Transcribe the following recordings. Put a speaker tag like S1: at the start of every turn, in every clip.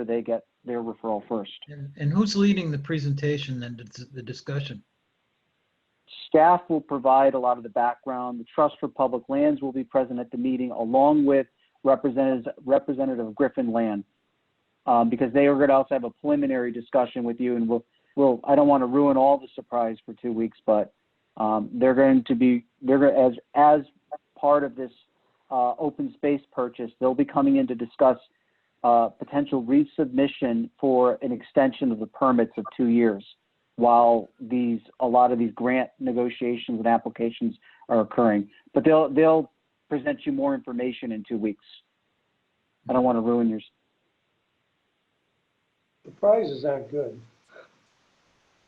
S1: so they get their referral first.
S2: And and who's leading the presentation and the- the discussion?
S1: Staff will provide a lot of the background. The Trust for Public Lands will be present at the meeting along with representatives, Representative of Griffin Land. Um, because they are going to also have a preliminary discussion with you and we'll, we'll, I don't want to ruin all the surprise for two weeks, but, um, they're going to be, they're going, as, as part of this, uh, open space purchase, they'll be coming in to discuss, uh, potential resubmission for an extension of the permits of two years while these, a lot of these grant negotiations and applications are occurring. But they'll, they'll present you more information in two weeks. I don't want to ruin yours.
S3: The prizes aren't good.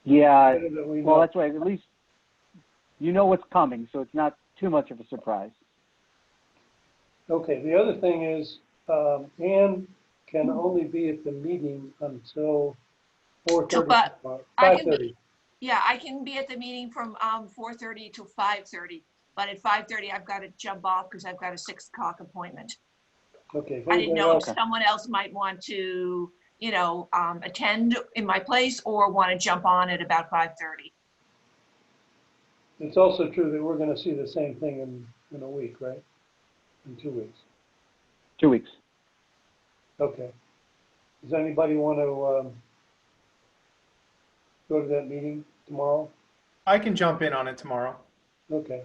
S1: Yeah,
S3: Better that we
S1: well,
S3: know.
S1: that's right. At least you know what's coming, so it's not too much of a surprise.
S3: Okay, the other thing is, um, Ann can only be at the meeting until four
S4: Till
S3: thirty.
S4: what? I
S3: Five
S4: can be-
S3: thirty.
S4: Yeah, I can be at the meeting from um, 4:30 to 5:30, but at 5:30 I've got to jump off because I've got a 6 o'clock appointment.
S3: Okay. if
S4: I didn't
S3: anybody
S4: know if
S3: else-
S1: Okay.
S4: someone else might want to, you know, um, attend in my place or want to jump on at about 5:30.
S3: It's also true that we're gonna see the same thing in, in a week, right? In two weeks.
S1: Two weeks.
S3: Okay. Does anybody want to, um, go to that meeting tomorrow?
S5: I can jump in on it tomorrow.
S3: Okay.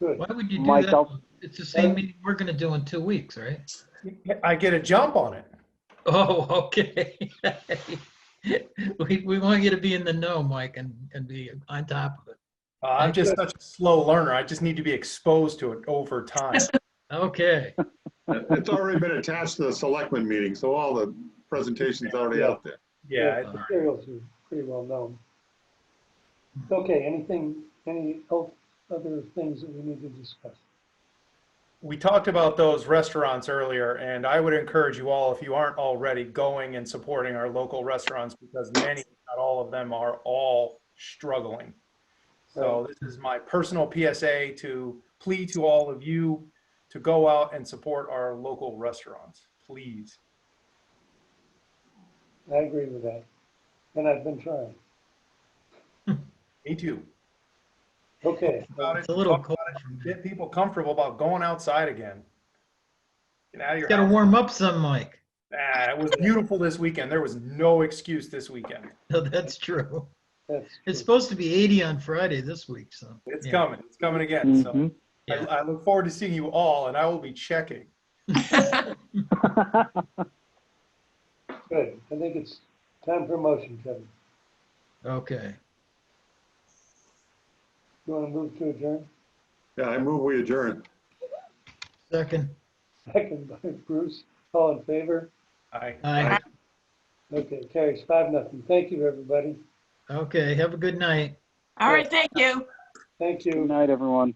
S3: Good.
S2: Why would you do
S1: Myself.
S2: that? It's the same meeting we're going to do in two weeks, right?
S5: I get a jump on it.
S2: Oh, okay. We, we want you to be in the know, Mike, and, and be on top of it.
S5: Uh, I'm just such a slow learner. I just need to be exposed to it over time.
S2: Okay.
S6: It's already been attached to the selectmen meeting, so all the presentation's already out there.
S5: Yeah,
S3: The Materials are pretty well known. Okay, anything, any el- other things that we need to discuss?
S5: we talked about those restaurants earlier, and I would encourage you all, if you aren't already, going and supporting our local restaurants because many, not all of them, are all struggling. So this is my personal PSA to plea to all of you to go out and support our local restaurants, please.
S3: I agree with that, and I've been trying.
S5: Me too.
S3: Okay,
S5: About it,
S2: It's a little
S5: talk
S2: cold.
S5: about it, Get people comfortable about going outside again. Get out of your
S2: Got to
S5: house.
S2: warm up some, Mike.
S5: Ah, it was beautiful this weekend. There was no excuse this weekend.
S2: No, that's true.
S3: that's,
S2: It's supposed to be 80 on Friday this week, so.
S5: It's
S2: yeah.
S5: coming. It's coming again. So
S1: Mhm.
S5: I, I look forward to seeing you all, and I will be checking.
S1: Mm-hmm.
S3: good. I think it's time for a motion, Kevin.
S2: Okay.
S3: You want to move to adjourn?
S6: Yeah, I move we adjourn.
S2: Second.
S3: Second by Bruce, all in favor?
S5: I,
S2: Aye.
S3: Okay, carries five, nothing. Thank you, everybody.
S2: Okay. Have a good night.
S4: All right, thank you.
S3: Thank
S1: Good
S3: you.
S1: night, everyone.